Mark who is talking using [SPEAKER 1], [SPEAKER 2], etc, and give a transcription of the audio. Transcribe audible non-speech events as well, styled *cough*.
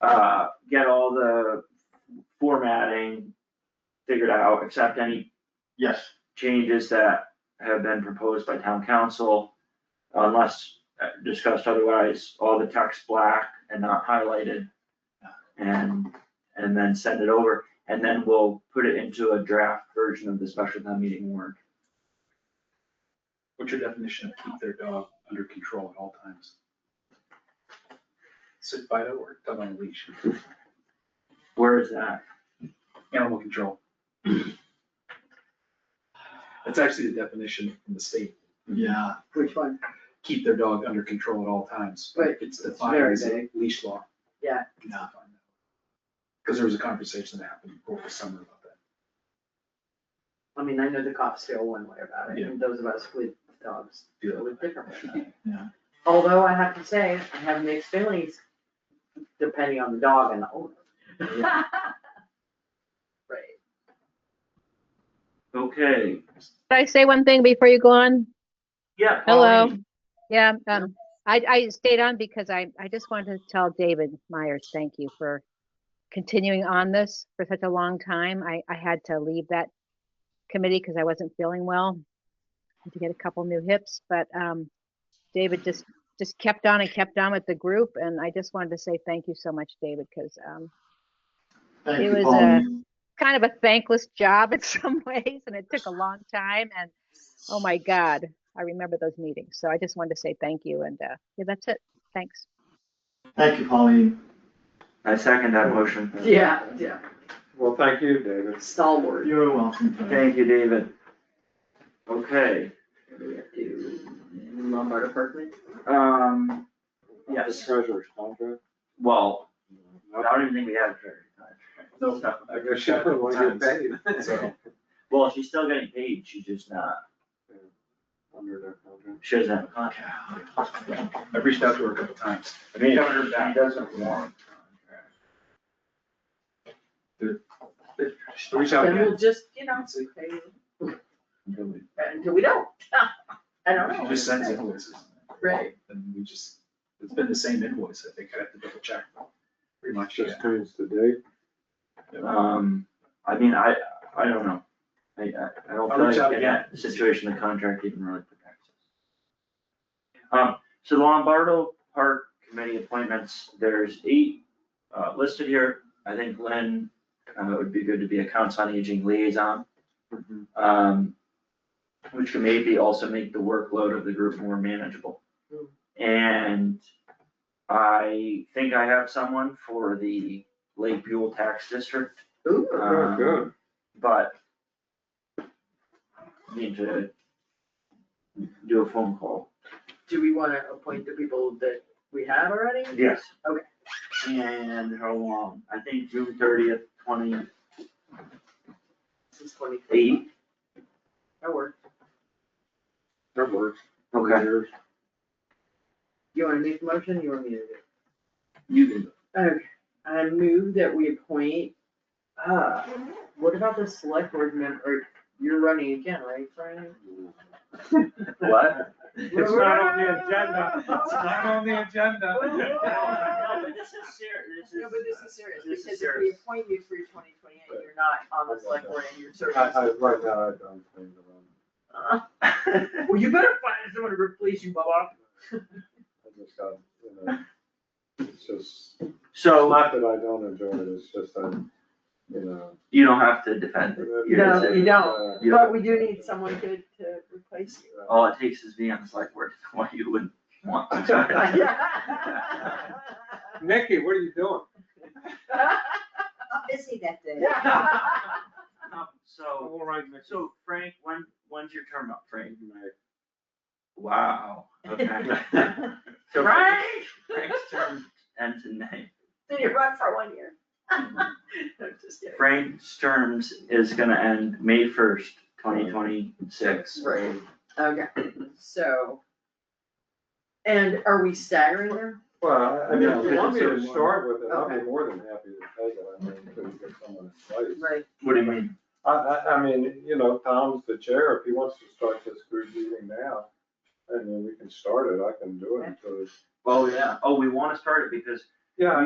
[SPEAKER 1] uh, get all the formatting figured out, accept any
[SPEAKER 2] Yes,
[SPEAKER 1] changes that have been proposed by town council. Unless uh, discussed otherwise, all the text black and not highlighted. And, and then send it over, and then we'll put it into a draft version of the special town meeting warrant.
[SPEAKER 2] what's your definition of keep their dog under control at all times? Sit by it or dog on a leash,
[SPEAKER 1] Where is that?
[SPEAKER 2] animal control. That's actually the definition from the state,
[SPEAKER 3] Yeah.
[SPEAKER 4] Which one?
[SPEAKER 2] keep their dog under control at all times.
[SPEAKER 4] But
[SPEAKER 2] It's
[SPEAKER 4] it's
[SPEAKER 2] defined
[SPEAKER 4] very
[SPEAKER 2] as a
[SPEAKER 4] vague.
[SPEAKER 2] leash law.
[SPEAKER 4] Yeah.
[SPEAKER 2] Yeah. Cause there was a conversation that happened over the summer about that.
[SPEAKER 4] I mean, I know the cops feel one way about it, and those of us with dogs feel
[SPEAKER 2] *laughs*
[SPEAKER 4] it differently.
[SPEAKER 3] Yeah.
[SPEAKER 4] Although I have to say, I have mixed feelings, depending on the dog and the owner.
[SPEAKER 1] Yeah.
[SPEAKER 4] Right.
[SPEAKER 1] Okay,
[SPEAKER 5] Can I say one thing before you go on?
[SPEAKER 1] yeah.
[SPEAKER 5] Hello.
[SPEAKER 1] Pauline.
[SPEAKER 5] Yeah, um, I, I stayed on because I, I just wanted to tell David Myers, thank you for continuing on this for such a long time. I, I had to leave that committee because I wasn't feeling well. Had to get a couple new hips, but, um, David just, just kept on and kept on with the group. And I just wanted to say thank you so much, David, because, um,
[SPEAKER 3] Thank
[SPEAKER 5] It
[SPEAKER 3] you,
[SPEAKER 5] was, uh,
[SPEAKER 3] Pauline.
[SPEAKER 5] kind of a thankless job in *laughs* some ways and it took a long time and oh my god i remember those meetings so i just wanted to say thank you and uh, yeah that's it thanks
[SPEAKER 3] Thank you, Pauline.
[SPEAKER 1] I second that motion.
[SPEAKER 4] Yeah, yeah,
[SPEAKER 6] Well, thank you, David.
[SPEAKER 4] stalwart.
[SPEAKER 3] You're welcome. Tony.
[SPEAKER 1] Thank you, David. Okay,
[SPEAKER 4] What do we have to do? Lombardo Parkman?
[SPEAKER 1] um, yes,
[SPEAKER 6] Treasurer's contract.
[SPEAKER 1] well, I don't even think we have a treasurer.
[SPEAKER 2] No,
[SPEAKER 6] I guess she doesn't want to get paid.
[SPEAKER 2] So,
[SPEAKER 1] Well, she's still getting paid, she's just not,
[SPEAKER 6] *laughs* Under their contract.
[SPEAKER 1] she doesn't have a contract.
[SPEAKER 2] I've reached out to her a couple times.
[SPEAKER 1] I
[SPEAKER 2] mean, she
[SPEAKER 1] doesn't want.
[SPEAKER 2] Just Reach out
[SPEAKER 4] Then
[SPEAKER 2] again.
[SPEAKER 4] we'll just, you know, pay until we don't. *laughs* I don't know.
[SPEAKER 2] She just sends invoices.
[SPEAKER 4] Right.
[SPEAKER 2] And we just, it's been the same invoice, I think, I have to double check. Pretty much, yeah.
[SPEAKER 6] Just times the date.
[SPEAKER 1] Um, I mean, I, I don't know. I, I, I don't
[SPEAKER 2] I'll
[SPEAKER 1] feel
[SPEAKER 2] reach
[SPEAKER 1] like
[SPEAKER 2] out
[SPEAKER 1] in that situation, the contract even really protects us. Um, so the Lombardo Park Committee appointments, there's eight, uh, listed here. I think Lynn, uh, would be good to be a council on aging liaison.
[SPEAKER 2] Mm-hmm.
[SPEAKER 1] um, which can maybe also make the workload of the group more manageable.
[SPEAKER 2] Mm.
[SPEAKER 1] And I think I have someone for the Lake Buell Tax District,
[SPEAKER 4] Ooh,
[SPEAKER 2] Ah,
[SPEAKER 6] Very good.
[SPEAKER 1] but need to do a phone call.
[SPEAKER 4] do we wanna appoint the people that we have already?
[SPEAKER 1] Yes.
[SPEAKER 4] Okay.
[SPEAKER 1] And how long? I think June thirtieth, twenty
[SPEAKER 4] Since twenty,
[SPEAKER 1] eight.
[SPEAKER 4] that works.
[SPEAKER 6] That works.
[SPEAKER 1] Okay.
[SPEAKER 6] Years.
[SPEAKER 4] You wanna make the motion, you want me to do it?
[SPEAKER 1] You can
[SPEAKER 4] Okay, I move that we appoint, uh, what about the select board member, you're running again, right, Brian?
[SPEAKER 1] What?
[SPEAKER 6] It's not on the agenda.
[SPEAKER 4] It's not
[SPEAKER 2] on the agenda.
[SPEAKER 1] No, but this is serious,
[SPEAKER 4] No, but this is serious,
[SPEAKER 1] This is
[SPEAKER 4] because if we
[SPEAKER 1] serious.
[SPEAKER 4] appoint you through twenty twenty-eight, you're not on the select board and you're serving.
[SPEAKER 6] I, I, right now, I don't think around.
[SPEAKER 4] Uh,
[SPEAKER 1] is.
[SPEAKER 4] Well, you better find someone to replace you, Bubba.
[SPEAKER 6] I just got, you know, it's just,
[SPEAKER 1] So, uh,
[SPEAKER 6] not that I don't enjoy it, it's just I'm, you know.
[SPEAKER 1] you don't have to defend it. Your
[SPEAKER 4] No,
[SPEAKER 1] decision.
[SPEAKER 4] you don't.
[SPEAKER 1] Yeah.
[SPEAKER 4] But we do need someone good to replace
[SPEAKER 6] *laughs*
[SPEAKER 4] you. *laughs*
[SPEAKER 6] Uh,
[SPEAKER 1] All it takes is being on the select board, why you wouldn't want to.
[SPEAKER 6] Nikki, what are you doing?
[SPEAKER 7] busy that day.
[SPEAKER 1] Um, So,
[SPEAKER 6] All right, Nikki.
[SPEAKER 1] so Frank, when, when's your term up, Frank? Wow, okay. *laughs* So
[SPEAKER 4] Right?
[SPEAKER 1] Frank's term ends in May.
[SPEAKER 4] Then you run for one year. *laughs* I'm just kidding.
[SPEAKER 1] Frank's terms is gonna end May first, twenty twenty-six.
[SPEAKER 4] Right, okay, so. And are we staggering them?
[SPEAKER 6] Well, I mean, if you want me to
[SPEAKER 1] Yeah.
[SPEAKER 6] start with it, I'd be more than happy to take it, I mean, to get someone in place.
[SPEAKER 4] Right.
[SPEAKER 1] What do you mean?
[SPEAKER 6] I, I, I mean, you know, Tom's the chair, if he wants to start this group meeting now, and then we can start it, I can do it until it's.
[SPEAKER 1] Oh, yeah. Oh, we wanna start it because
[SPEAKER 6] Yeah,